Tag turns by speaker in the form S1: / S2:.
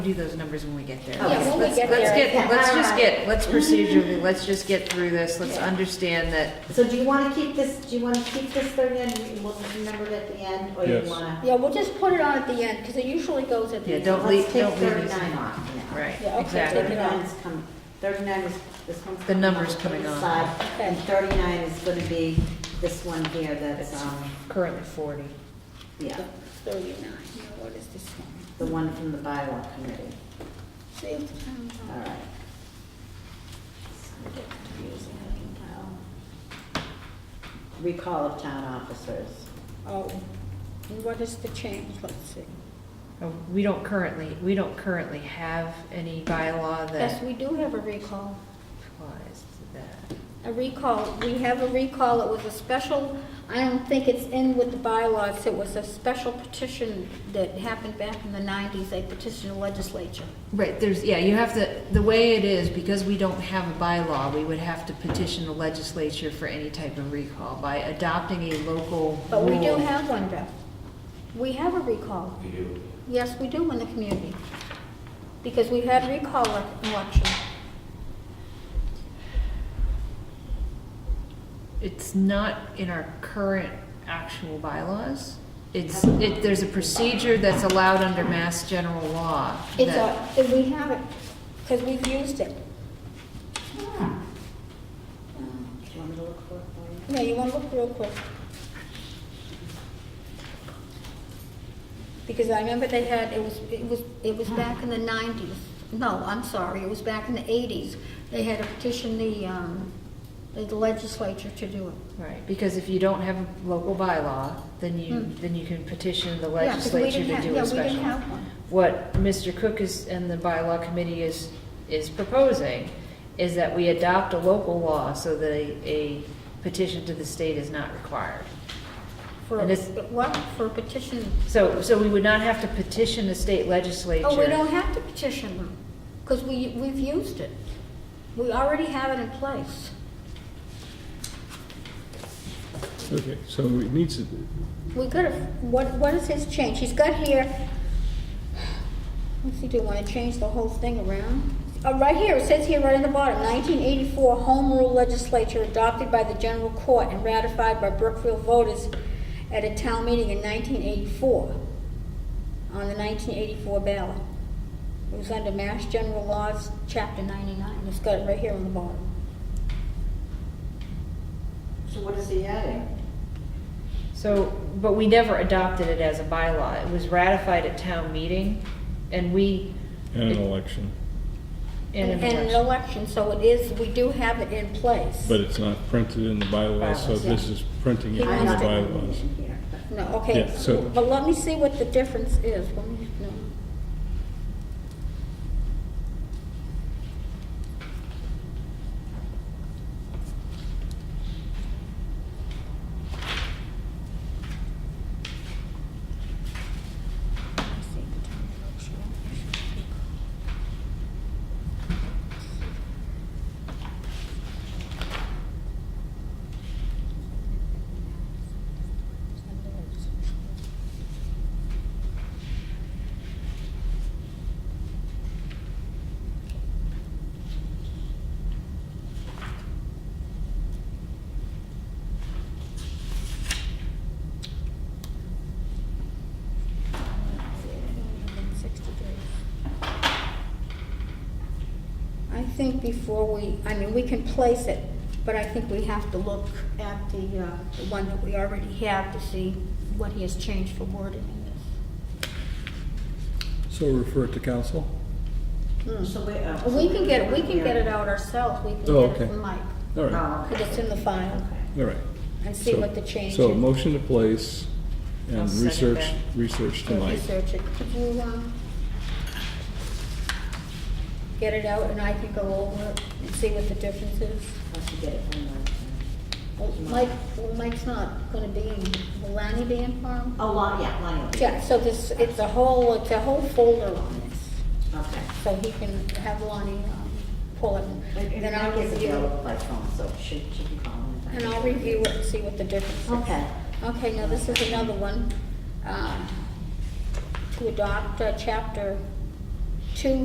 S1: do those numbers when we get there.
S2: Yeah, when we
S1: Let's-
S2: get
S1: Let's
S2: there.
S1: get, let's just get, let's procedurally, let's just get through this, let's understand that,
S3: So do you want to keep this, do you want to keep this thirty and we'll just number it at the end, or you
S4: Yes.
S3: want to?
S2: Yeah, we'll just put it on at the end, because it usually goes at the
S1: Yeah,
S2: end.
S1: don't leave-
S3: Let's take
S1: don't leave these
S3: thirty-nine
S1: in.
S3: off now.
S1: right,
S2: Yeah, okay,
S1: exactly.
S2: take it
S3: Thirty-nine
S2: off.
S3: is coming, thirty-nine is, this one's.
S1: The
S3: coming
S1: number's
S3: on the
S1: coming on.
S3: side, And
S2: Okay.
S3: thirty-nine is going to be this one here that's, um,
S1: Currently forty.
S3: yeah,
S2: Thirty-nine, now what is this one?
S3: the one from the bylaw committee,
S2: Save the town
S3: all
S2: hall.
S3: right. So I get confused in that email. Recall of town officers.
S2: Oh, and what is the change, let's see.
S1: Oh, We don't currently, we don't currently have any bylaw
S2: Yes,
S1: that
S2: we do have a recall.
S1: applies to that.
S2: A recall, we have a recall, it was a special, I don't think it's in with the bylaws, it was a special petition that happened back in the nineties, they petitioned the legislature.
S1: Right, there's, yeah, you have to, the way it is, because we don't have a bylaw, we would have to petition the legislature for any type of recall by adopting a local rule.
S2: But we do have one, Beth. We have a recall. We do? Yes, we do in the community, because we had recall elec- election.
S1: It's not in our current actual bylaws. It's, it, there's a procedure that's allowed under mass general law.
S2: It's
S1: that-
S2: a, and we have it, because we've used it.
S3: Um, Do you want me to look for it for you?
S2: No, you want to look real quick? Because I remember they had, it was, it was, it was back in the nineties. No, I'm sorry, it was back in the eighties. They had to petition the, um, the legislature to do it.
S1: Right, because if you don't have a local bylaw, then you,
S2: Hmm.
S1: then you can petition the
S2: Yeah, 'cause we
S1: legislature
S2: didn't
S1: to
S2: have-
S1: do
S2: yeah,
S1: a
S2: we didn't
S1: special.
S2: have one.
S1: What Mr. Cook is, and the bylaw committee is, is proposing, is that we adopt a local law so that a, a petition to the state is not required.
S2: For,
S1: And
S2: a-
S1: it's-
S2: what, for a petition?
S1: So, so we would not have to petition the state legislature.
S2: Oh, we don't have to petition them, because we, we've used it. We already have it in place.
S4: Okay, so it needs to,
S2: We could have, what, what is his change? He's got here, let's see, do I want to change the whole thing around? Oh, right here, it says here right on the bottom, 1984 Home Rule Legislature adopted by the General Court and ratified by Brookfield voters at a town meeting in 1984, on the 1984 ballot. It was under Mass General Laws, Chapter 99, it's got it right here on the bottom.
S3: So what is he adding?
S1: So, but we never adopted it as a bylaw. It was ratified at town meeting, and we.
S4: in an election,
S1: and an
S2: And an
S1: election.
S2: election, so it is, we do have it in place.
S4: but it's not printed in the bylaws, so
S1: Bylaws,
S4: this is printing it
S2: He
S4: in
S3: I'm
S4: the
S3: not gonna
S4: bylaws.
S3: mention here, but-
S2: No, okay,
S4: Yeah, so-
S2: but let me see what the difference is. Let me, no. I think before we, I mean, we can place it, but I think we have to look at the, uh, the one that we already have to see what he has changed for wording in this.
S5: So refer it to council?
S3: So we, uh,
S2: We can get, it. we can get it out ourselves, we can
S5: Oh,
S2: get it
S5: okay.
S2: from Mike,
S5: All right,
S3: Oh,
S2: because it's in the file,
S5: all right.
S2: and Uh, see
S5: So-
S2: what the change is.
S5: So motion to place
S1: I'll
S5: and
S1: second
S5: research,
S1: that.
S5: research
S2: We'll
S5: tonight.
S2: Research it, could you, um, get it out, and I can go over it and see what the difference is?
S3: Once you get it from the,
S2: Well, Mike, well, Mike's not gonna be, in- will Lanny be in for him?
S3: oh, Lonnie, yeah, Lonnie. will be-
S2: Yeah, so this, it's a whole, it's a whole folder on this,
S3: Okay.
S2: so he can have Lonnie, um, pull it,
S3: And
S2: and then
S3: and
S2: I'll
S3: Mike is
S2: review
S3: available
S2: it.
S3: by phone, so she, she can call him.
S2: And I'll review it and see what the difference is.
S3: Okay.
S2: Okay, now this is another one. um, To adopt uh, chapter